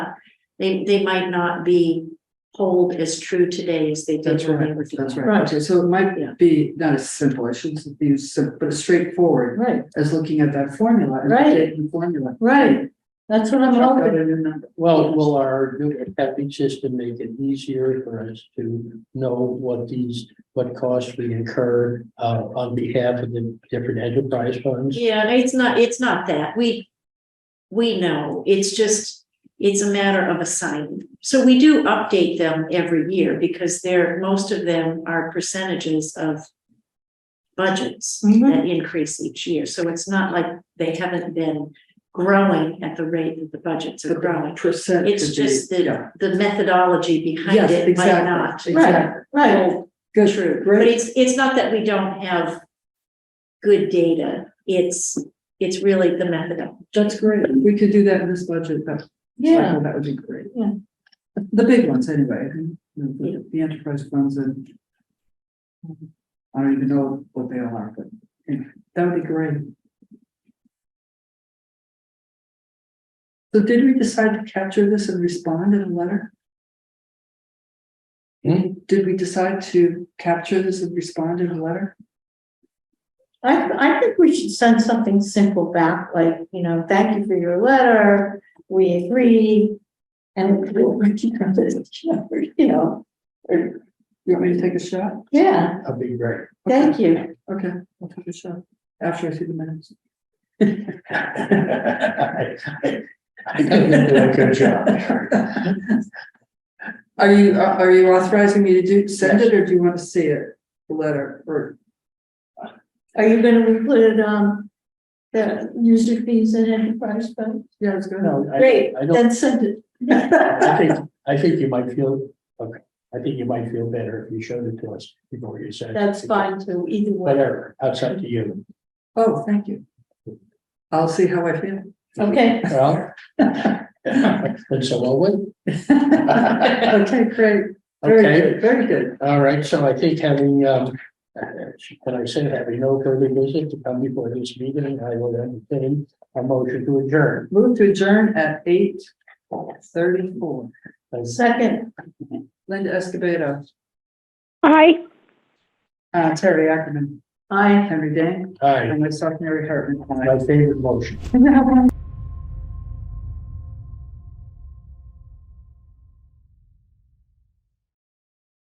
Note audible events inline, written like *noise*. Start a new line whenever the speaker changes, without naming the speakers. They, they might not be hold as true today as they did
That's
when they
right,
were. doing
That's
it.
right, okay, so it
Yeah.
might be not as simple, I shouldn't use, sim- but as straightforward
Right,
as looking at that formula. and
Right.
taking Formula.
right. That's what I'm
Chuck out
hoping.
a new number.
Well,
Yes.
will our new accounting system make it easier for us to know what these, what costs we incur uh on behalf of the different enterprise funds?
Yeah, and it's not, it's not that. We, we know. It's just, it's a matter of assigning. So we do update them every year because they're, most of them are percentages of budgets
Mm-hmm.
Mhm.
that increase each year. So it's not like they haven't been growing at the rate that the budgets are
But the
growing.
percent.
It's
could be-
just the,
yeah.
the methodology behind
Yes,
it might
exactly,
not.
exactly.
Right,
hold
Good,
true, but
great.
it's, it's not that we don't have good data, it's, it's really the methodology.
That's great. If We could do that in this budget, that
yeah,
that would be great.
Yeah.
The big ones anyway, you know, the, the enterprise funds and I don't even know what they all are, but yeah, that would be great. So did we decide to capture this and respond in a letter?
Hmm?
Did we decide to capture this and respond in a letter?
I, I think we should send something simple back, like, you know, thank you for your letter, we agree. And we'll work it out, *laughs* you know,
Or you want me to take a shot?
yeah,
That'd be
*laughs*
great.
thank you.
Okay, I'll take a shot after I see the minutes.
I think you're doing a good job there.
Are you, are are you authorizing me to do, send it, or do you want to see it, the letter, or?
Are you gonna include, um, the user fees and enterprise fund?
Yeah, it's good.
No, I-
Great,
I don't,
then send it.
I think, I think you might feel, okay, I think you might feel better if you showed it to us before you said.
That's fine too, either way.
Whatever, that's up to you.
Oh, thank you. I'll see how I
*laughs*
feel.
Okay,
Well. *laughs* And so will we.
Okay, great. Very
Okay.
good, Very good.
All right, so I think having, um, can I say having no further business to come before this meeting, I will entertain a motion to adjourn.
Move to adjourn at eight thirty-four.
second,
Linda Escobedo,
Aye.
uh, Terry Ackerman,
I.
Henry Dang,
Aye,
and myself, Mary Hartman.
*laughs* my favorite motion.
Aye.